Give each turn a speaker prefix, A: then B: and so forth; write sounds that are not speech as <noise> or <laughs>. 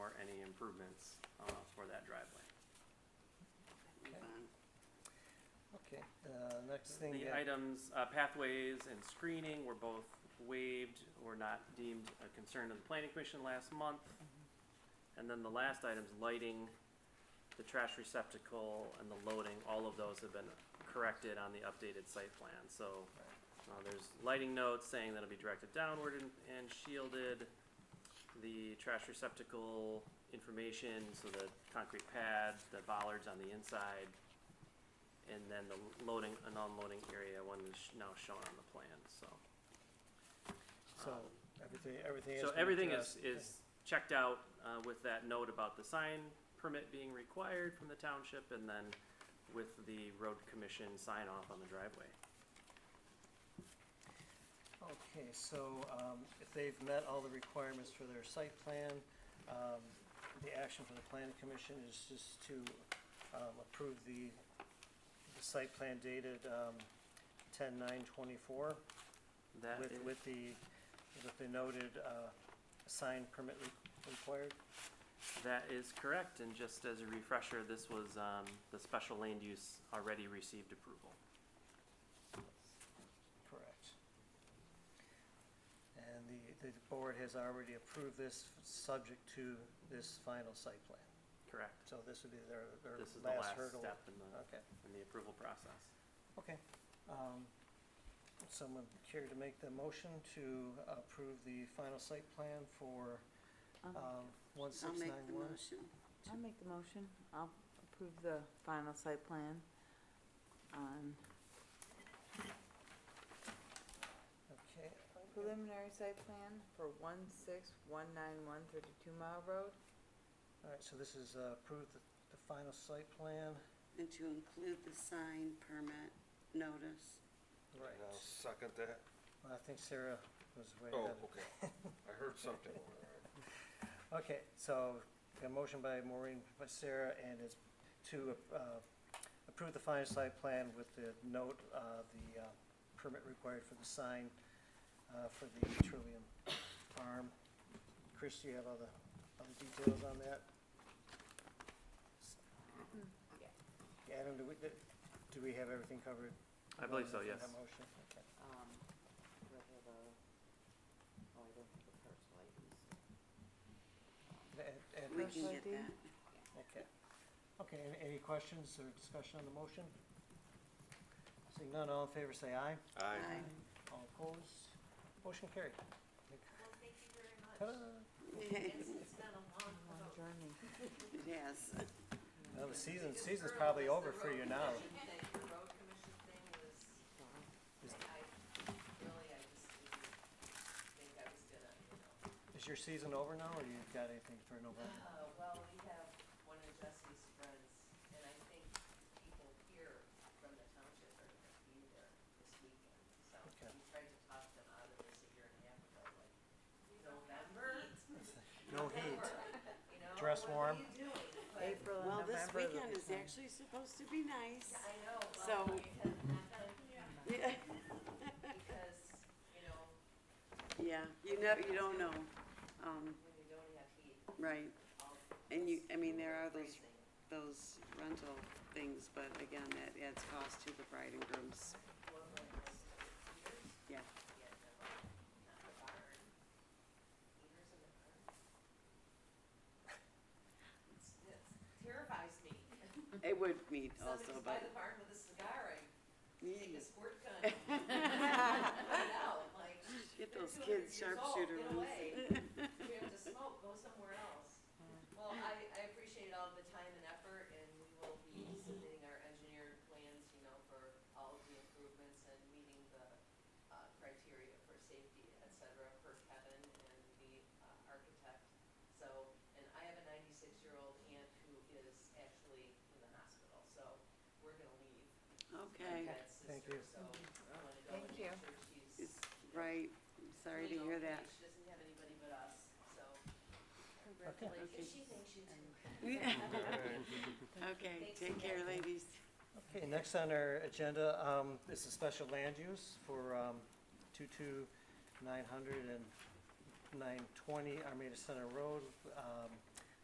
A: improvements, uh, for that driveway.
B: Okay, the next thing
A: The
B: that,
A: items, uh, pathways and screening were both waived, were not deemed a concern of the planning commission last month. And then the last items, lighting, the trash receptacle and the loading, all of those have been corrected on the updated site plan, so. Uh, there's lighting notes saying that'll be directed downward and, and shielded. The trash receptacle information, so the concrete pad, the bollards on the inside. And then the loading and unloading area one is sh- now shown on the plan, so.
B: so,
A: um,
B: everything, everything is.
A: So
B: gonna
A: everything
B: address-
A: is, is checked out, uh, with that note about the sign permit being required from the township and then with the road commission sign off on the driveway.
B: Okay, so, um, if they've met all the requirements for their site plan, um, the action for the planning commission is just to, um, approve the, the site plan dated, um, ten nine twenty-four.
A: That
B: With,
A: is-
B: with the, with the noted, uh, sign permit re- required,
A: That is correct, and just as a refresher, this was, um, the special land use already received approval.
B: correct. And the, the board has already approved this, subject to this final site plan,
A: Correct.
B: so this would be their, their
A: This is the
B: last
A: last
B: hurdle.
A: step in the,
B: Okay,
A: in the approval process.
B: okay, um, would someone care to make the motion to approve the final site plan for, um, one six
C: I'll
B: nine
C: make the
B: one?
C: motion.
D: I'll make the motion. I'll approve the final site plan on
B: Okay,
D: preliminary site plan for one six one nine one thirty-two mile road.
B: alright, so this is, uh, approved the, the final site plan,
C: And to include the sign permit notice.
B: right.
E: And I'll second that.
B: Well, I think Sarah was way
E: Oh,
B: ahead.
E: okay. I heard something. over there.
B: Okay, so a motion by Maureen, by Sarah, and it's to uh, approve the final site plan with the note, uh, the uh, permit required for the sign uh, for the Trillium Farm. Chris, do you have all the, all the details on that?
D: yeah.
B: Adam, do we, do we have everything covered?
A: I believe so,
B: in
A: yes.
B: that motion? Okay.
F: um, whether the, oh, I don't have the parcel IDs.
B: Ed- Ed,
C: We
B: Chris?
C: can get
D: ID?
C: that.
B: Okay. Okay, an- any questions or discussion on the motion? Seeing none, all in favor say aye.
E: Aye.
C: Aye.
B: All opposed? Motion carried.
G: Well, thank you very
B: Ta-da.
G: much.
C: <laughs>
G: It's,
C: It
G: it's been a long
D: Long
G: vote.
D: journey.
C: has.
B: Now the season, season's probably over for you now.
G: The road commission thing was,
B: Is-
G: I, really, I just didn't think I was gonna, you know.
B: Is your season over now, or you've got anything for November?
G: Uh, well, we have one of Jesse's friends, and I think people here from the township are gonna be there this weekend. So
B: Okay.
G: we tried to talk them out of this a year and a half ago, like, November?
B: No heat.
G: You know,
B: Dress
G: what
B: warm.
G: are you doing? But-
D: April and
C: Well,
D: November.
C: this
D: are the
C: weekend is
D: time.
C: actually supposed to be
G: <laughs>
C: nice.
G: I know,
C: So-
G: well, because,
C: Yeah,
G: because, you know,
C: Yeah, you know, you don't know. Um,
G: when you don't have heat,
C: right,
G: all.
C: and you, I mean, there are those,
G: freezing.
C: those rental things, but again, that adds cost to the bride and groom's,
G: Well, like this,
C: yeah.
G: heaters, yeah, no, not the barn. Heaters in the barn. It's, it's terrifies
C: <laughs>
G: me.
C: It would meet also,
G: Somebody's by
C: but. <laughs>
G: the barn with a cigar, I take
C: Yeah.
G: a squirt gun.
C: <laughs>
G: <laughs> Put it out, like,
C: Get
G: They're
C: those
G: 200
C: kids
G: years old,
C: sharpshooter
G: get
C: ones. <laughs>
G: away. if you have to smoke, go somewhere else. Well, I, I appreciate all the time and effort, and we will be submitting our engineered plans, you know, for all of the improvements and meeting the, uh, criteria for safety, et cetera, for Kevin and the, uh, architect. So, and I have a ninety-six-year-old aunt who is actually in the hospital, so we're gonna leave.
C: Okay,
G: Pat's
B: Thank
G: sister,
B: you.
G: So, I wanna go
D: Thank
G: and
D: you.
G: make sure
C: it's,
G: she's.
C: right, sorry to hear
G: Legal, and
C: that.
G: She doesn't have anybody but us, so
C: Okay.
G: congratulations. She thinks you do.
C: <laughs>
G: <laughs>
C: Okay,
G: Thanks
C: take care,
G: again.
C: ladies.
B: Okay, next on our agenda, um, this is special land use for, um, two-two nine hundred and nine twenty Armada Center Road. Um,